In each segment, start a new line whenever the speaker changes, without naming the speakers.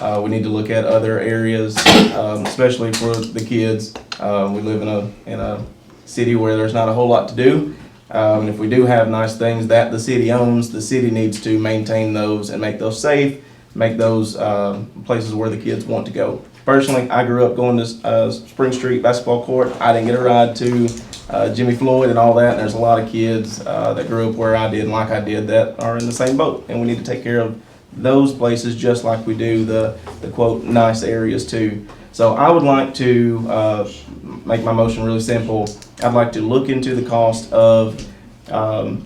Uh, we need to look at other areas, um, especially for the kids. Uh, we live in a, in a city where there's not a whole lot to do. Um, and if we do have nice things that the city owns, the city needs to maintain those and make those safe, make those, um, places where the kids want to go. Personally, I grew up going to, uh, Spring Street Basketball Court. I didn't get a ride to, uh, Jimmy Floyd and all that. And there's a lot of kids, uh, that grew up where I did and like I did that are in the same boat. And we need to take care of those places just like we do the, the quote, nice areas too. So I would like to, uh, make my motion really simple. I'd like to look into the cost of, um,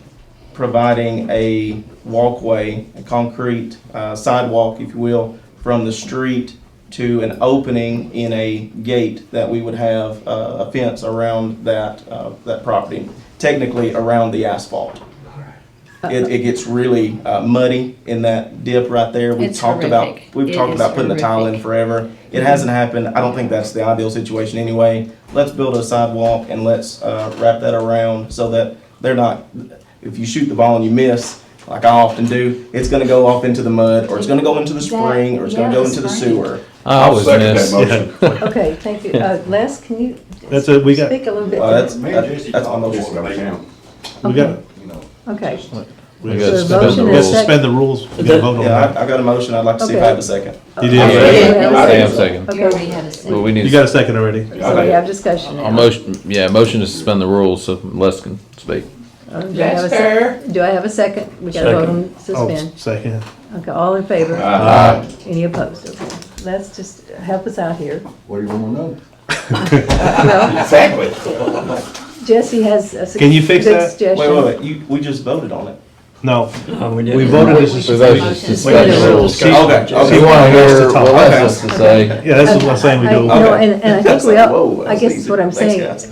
providing a walkway, a concrete, uh, sidewalk, if you will, from the street to an opening in a gate that we would have, uh, a fence around that, uh, that property, technically around the asphalt. It, it gets really uh, muddy in that dip right there. We've
It's
talked
horrific.
about, we've
It
talked
is
about putting the tile in
horrific.
forever. It hasn't happened. I don't think that's the ideal situation anyway. Let's build a sidewalk and let's, uh, wrap that around so that they're not, if you shoot the ball and you miss, like I often do, it's gonna go off into the mud, or it's gonna go into the spring, or it's gonna go into the sewer.
I always
second
miss.
that motion.
Okay, thank you. Uh, Les, can you?
That's it, we got-
Speak a little bit.
Well, Uh, that's,
to-
Me and
that's
Jesse
that's on the
talked
board.
just about now,
We got,
you know.
Okay,
we
gotta
got
So a
to
motion and a
suspend the rules, we got to vote on
Yeah,
that.
I, I got a motion, I'd like to see if I have a second.
You
Yeah.
did, right?
I
Hang on a
didn't-
second.
You already had a
Well,
second.
we need,
You got a second already.
so we have discussion now.
a motion, yeah, motion to suspend the rules so Les can speak.
Um, do I have a sec- Do I have a second? We gotta vote on
Oh,
suspend.
Second.
Okay, all in favor?
Aye.
Any opposed? Okay. Les, just help us out here.
What do you wanna know?
Well,
Exactly.
Jesse has a. su-
Can you fix
good
that?
Wait,
suggestion.
wait, wait, you, we just voted on it.
No, we
We-
voted
we
to
should
suspend.
voted to
motion.
suspend
the rules.
She-
Okay,
she
okay.
wanted us to
hear
talk.
what Les has to say.
Yeah, that's what I'm saying, we
I-
do.
No,
Okay.
and, and I think we
Whoa,
all,
that
I
was
guess
easy.
what I'm
Thanks,
saying,
guys.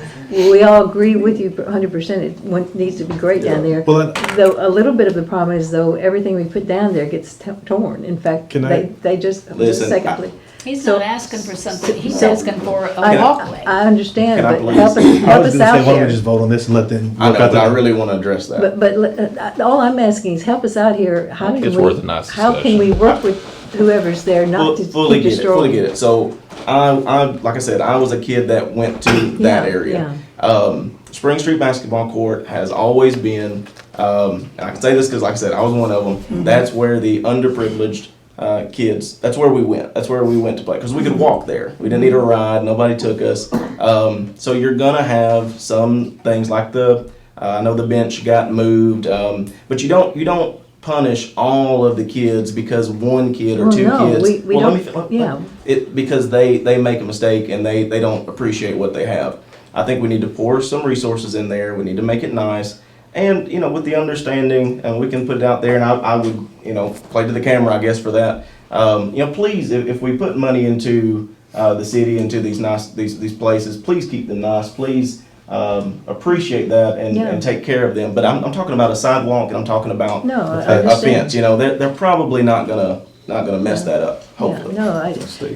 we all agree with you hundred percent, it want- needs to be great down there.
Well, then-
Though, a little bit of the problem is though, everything we put down there gets t- torn, in fact,
Can I-
they, they just, just a
Listen, I-
second, please.
He's
So-
not asking for something, he's
so-
asking for a
I-
walkway.
I understand,
Can I
but
please-
help us,
I
help
was
us
gonna say,
out
why don't we just
here.
vote on this and let them
I know,
work out
but I
the,
really wanna address that.
But, but, uh, all I'm asking is help us out here, how can
It's
we,
worth a nice
how can we work with whoever's there
Full-
not to
Fully
to
get it, fully get
destroy?
it. So I, I, like I said, I was a kid that went to that
Yeah,
area. Um, Spring Street Basketball Court has always been, um, and I can say this because like I said, I was one of
Mm-hmm.
them. That's where the underprivileged, uh, kids, that's where we went. That's where we went to play because we could walk there. We didn't need a ride. Nobody took us. Um, so you're gonna have some things like the, uh, I know the bench got moved, um, but you don't, you don't punish all of the kids because one kid or
Well,
two
no,
kids.
we- we
well, let
don't-
me fi- let-
yeah.
It, because they, they make a mistake and they, they don't appreciate what they have. I think we need to pour some resources in there. We need to make it nice. And, you know, with the understanding, and we can put it out there, and I, I would, you know, play to the camera, I guess, for that. Um, you know, please, if, if we put money into, uh, the city, into these nice, these, these places, please keep them nice. Please, um, appreciate that and,
Yeah.
and take care of them. But I'm, I'm talking about a sidewalk and I'm talking about
No, I
a- a
understand.
fence, you know, they're, they're probably not gonna, not gonna mess that up,
Yeah,
hopefully.
no, I,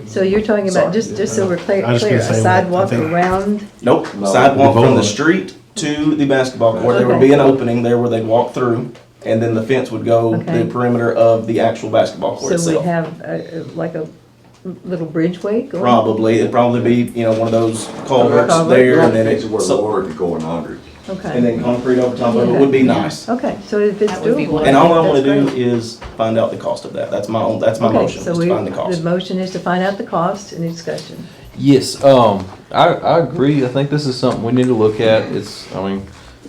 so you're talking
Sorry.
about, just, just so we're clear,
I was just
clear, a
gonna say, I
sidewalk
think-
around,
Nope,
No.
sidewalk from
Boulevard.
the street to the basketball court, there would
Okay.
be an opening there where they'd walk through, and then the fence would go the
Okay.
perimeter of the actual basketball court
so we
itself.
have a- a- like a little bridgeway going?
Probably, it'd probably be, you know, one of those culverts
Culvert.
there, and then
It's
it,
where the
so-
water could go in under.
and
Okay,
then concrete over top of it would be nice.
okay, so if it's
That would be
doable.
wonderful.
And all I wanna
that's
do
great.
is find out the cost of that, that's my own, that's my
Okay,
motion,
so
is to
we-
find the cost.
The motion is to find out the cost and discussion.
Yes, um, I, I agree. I think this is something we need to look at. It's, I mean,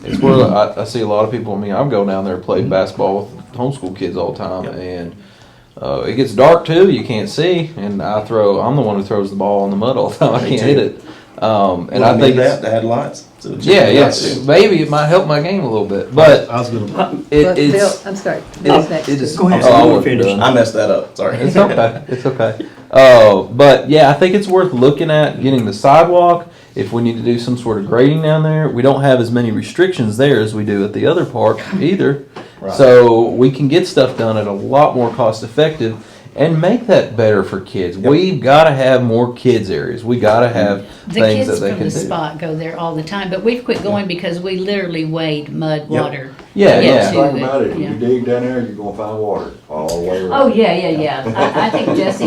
it's where I, I see a lot of people, I mean, I'm going down there and play basketball with homeschool kids all the time
Yep.
and, uh, it gets dark too, you can't see, and I throw, I'm the one who throws the ball in the mud all the time. I
Me
can't
too.
hit it. Um, and
Wouldn't
I
it be
think,
that,
it's-
to add lights. So it'd
yeah,
be
yes,
nice.
maybe it might help my game a little bit, but
I was gonna,
it,
But
it's.
Bill, I'm sorry, Bill's next.
It is.
Go ahead.
Oh, I
You
wasn't
finish.
done.
I messed that up, sorry.
It's okay. It's okay. Uh, but yeah, I think it's worth looking at getting the sidewalk. If we need to do some sort of grading down there, we don't have as many restrictions there as we do at the other park either.
Right.
So we can get stuff done at a lot more cost effective and make that better for kids. We've got to have more kids areas. We got to have
The
things that
kids
they
from
can
the
do.
spot go there all the time, but we've quit going because we literally wade mud, water.
Yeah,
to get
yeah.
to
Think about it, if
yeah.
you dig down there, you're gonna find water all the way around.
Oh, yeah, yeah, yeah. I, I think Jesse